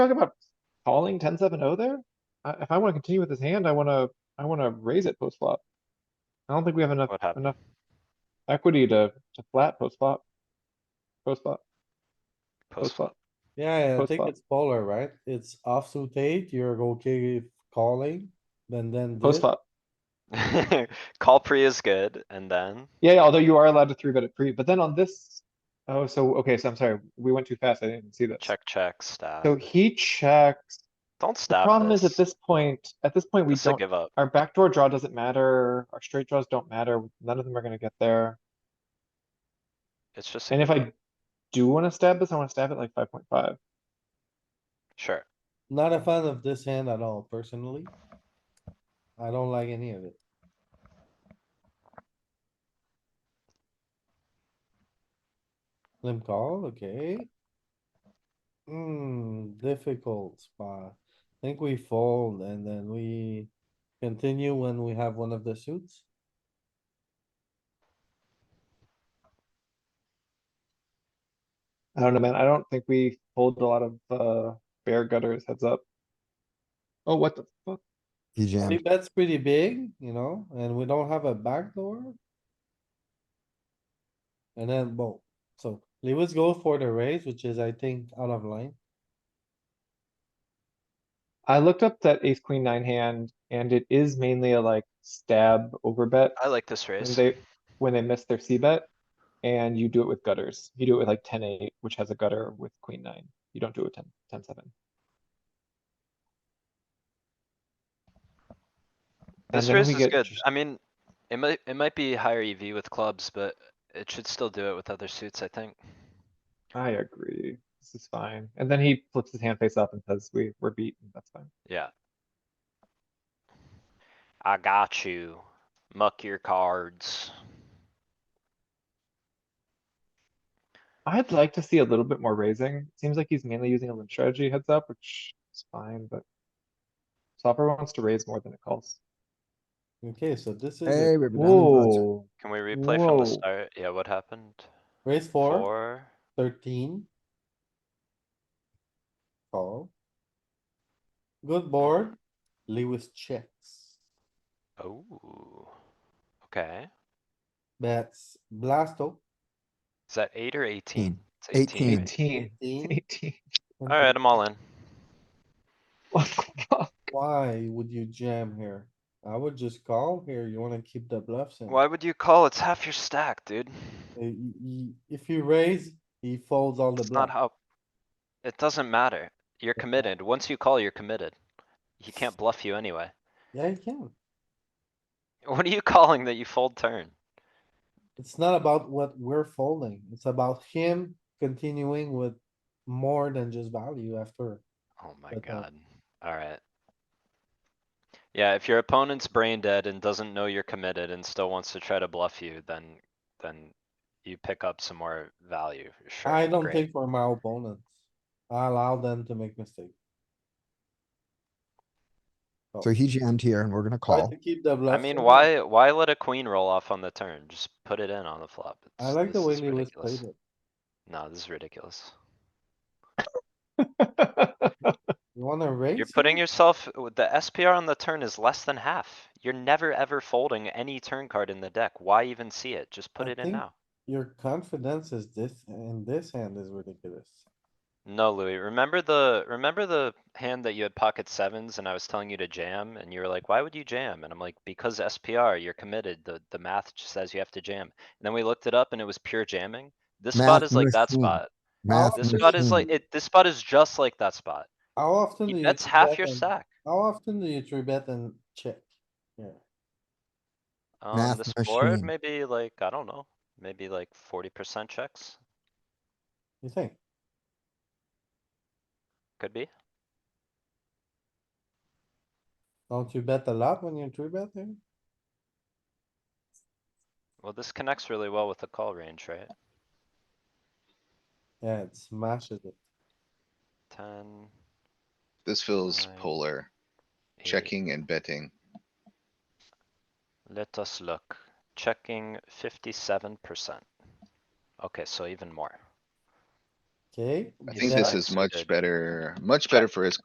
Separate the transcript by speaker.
Speaker 1: talk about calling ten seven oh there? I if I wanna continue with this hand, I wanna, I wanna raise it post flop. I don't think we have enough,
Speaker 2: What happened?
Speaker 1: enough equity to, to flat post flop. Post flop, post
Speaker 2: Post flop.
Speaker 1: flop.
Speaker 3: Yeah, I
Speaker 1: Post
Speaker 3: think
Speaker 1: flop.
Speaker 3: it's polar, right? It's offsuit eight, you're okay with calling, then then.
Speaker 1: Post
Speaker 3: this.
Speaker 1: flop.
Speaker 2: Call pre is good, and then
Speaker 1: Yeah, yeah, although you are allowed to three bet it pre, but then on this, oh, so, okay, so I'm sorry, we went too fast, I didn't even see this.
Speaker 2: check, check, stab.
Speaker 1: So he checks.
Speaker 2: Don't
Speaker 1: The
Speaker 2: stab
Speaker 1: problem is at
Speaker 2: this.
Speaker 1: this point, at this point, we
Speaker 2: This is a
Speaker 1: don't,
Speaker 2: give up.
Speaker 1: our backdoor draw doesn't matter, our straight draws don't matter, none of them are gonna get there.
Speaker 2: It's just, a
Speaker 1: And if
Speaker 2: give up.
Speaker 1: I do wanna stab this, I wanna stab it like five point five.
Speaker 2: sure.
Speaker 3: Not a fan of this hand at all, personally. I don't like any of it. Limp call, okay. Hmm, difficult spot. I Think we fold and then we continue when we have one of the suits.
Speaker 1: I don't know, man, I don't think we hold a lot of, uh, bear gutters heads up. Oh, what the fuck?
Speaker 4: He
Speaker 3: Three
Speaker 4: jammed.
Speaker 3: bet's pretty big, you know, and we don't have a backdoor. And then, boom, so Lewis go for the raise, which is, I think, out of line.
Speaker 1: I looked up that ace queen nine hand, and it is mainly a like stab over bet.
Speaker 2: I like this
Speaker 1: when
Speaker 2: raise.
Speaker 1: they, when they miss their C bet. And you do it with gutters. You do it with like ten eight, which has a gutter with queen nine. You don't do it with ten, ten seven.
Speaker 2: This
Speaker 1: then we
Speaker 2: raise is
Speaker 1: get
Speaker 2: good.
Speaker 1: just-
Speaker 2: I mean, it might, it might be higher EV with clubs, but it should still do it with other suits, I think.
Speaker 1: I agree. This is fine. And then he flips his hand face up and says, we, we're beaten. That's fine.
Speaker 2: Yeah. I got you. Muck your cards.
Speaker 1: I'd like to see a little bit more raising. Seems like he's mainly using a limp strategy heads up, which is fine, but. Flopper wants to raise more than it calls.
Speaker 3: Okay, so this is
Speaker 4: Hey,
Speaker 3: a
Speaker 4: we're bananas.
Speaker 1: Whoa,
Speaker 2: Can we replay from
Speaker 1: Whoa.
Speaker 2: the start? Yeah, what happened?
Speaker 3: raise four,
Speaker 2: Four.
Speaker 3: thirteen. Call. Good board, Lewis checks,
Speaker 2: Oh. Okay.
Speaker 3: bets, blasto.
Speaker 2: Is that eight or eighteen? It's
Speaker 4: 18.
Speaker 2: right?
Speaker 1: eighteen,
Speaker 3: 15.
Speaker 1: eighteen.
Speaker 2: Alright, I'm all in.
Speaker 1: What the fuck?
Speaker 3: Why would you jam here? I would just call here, you wanna keep the bluffs in.
Speaker 2: Why would you call? It's half your stack, dude.
Speaker 3: Uh, y- y- If you raise, he folds all the
Speaker 2: It's not how.
Speaker 3: bluff.
Speaker 2: It doesn't matter. You're committed. Once you call, you're committed. He can't bluff you anyway.
Speaker 3: Yeah, he can.
Speaker 2: What are you calling that you fold turn?
Speaker 3: It's not about what we're folding. It's about him continuing with more than just value after.
Speaker 2: Oh my
Speaker 3: But, uh,
Speaker 2: god. Alright. Yeah, if your opponent's brain dead and doesn't know you're committed and still wants to try to bluff you, then, then you pick up some more value. Sure,
Speaker 3: I don't
Speaker 2: great.
Speaker 3: think for my opponents. I allow them to make mistakes.
Speaker 4: So he jammed here and we're gonna
Speaker 3: Try
Speaker 4: call.
Speaker 3: to keep the
Speaker 2: I
Speaker 3: bluff.
Speaker 2: mean,
Speaker 3: in.
Speaker 2: why, why let a queen roll off on the turn? Just put it in on the flop.
Speaker 3: I
Speaker 2: It's-
Speaker 3: like the
Speaker 2: this
Speaker 3: way
Speaker 2: is
Speaker 3: Lewis
Speaker 2: ridiculous.
Speaker 3: played it.
Speaker 2: No, this is ridiculous.
Speaker 3: You wanna raise?
Speaker 2: You're putting
Speaker 3: here?
Speaker 2: yourself, with the SPR on the turn is less than half. You're never ever folding any turn card in the deck. Why even see it? Just put
Speaker 3: I
Speaker 2: it in
Speaker 3: think-
Speaker 2: now.
Speaker 3: Your confidence is this, in this hand is ridiculous.
Speaker 2: No, Louis, remember the, remember the hand that you had pocket sevens and I was telling you to jam and you were like, why would you jam? And I'm like, because SPR, you're committed. The, the math just says you have to jam. And then we looked it up and it was pure jamming. This spot
Speaker 4: Math
Speaker 2: is like that
Speaker 4: machine.
Speaker 2: spot.
Speaker 4: Math
Speaker 2: This spot is like,
Speaker 4: machine.
Speaker 2: it, this spot is just like that spot.
Speaker 3: How often do
Speaker 2: He
Speaker 3: you?
Speaker 2: bets
Speaker 3: three
Speaker 2: half
Speaker 3: bet
Speaker 2: your
Speaker 3: and-
Speaker 2: stack.
Speaker 3: How often do you three bet and check? Yeah.
Speaker 2: Um,
Speaker 4: Math
Speaker 2: this board
Speaker 4: machine.
Speaker 2: maybe like, I don't know, maybe like forty percent checks,
Speaker 3: You think?
Speaker 2: could be.
Speaker 3: Don't you bet a lot when you three bet there?
Speaker 2: Well, this connects really well with the call range, right?
Speaker 3: Yeah, it smashes it.
Speaker 2: Ten.
Speaker 5: This feels
Speaker 2: Right.
Speaker 5: polar,
Speaker 2: eight.
Speaker 5: checking and betting.
Speaker 2: Let us look. Checking fifty-seven percent. Okay, so even more.
Speaker 3: okay?
Speaker 5: I
Speaker 2: Yeah,
Speaker 5: think this
Speaker 2: that's
Speaker 5: is much
Speaker 2: good.
Speaker 5: better, much better for his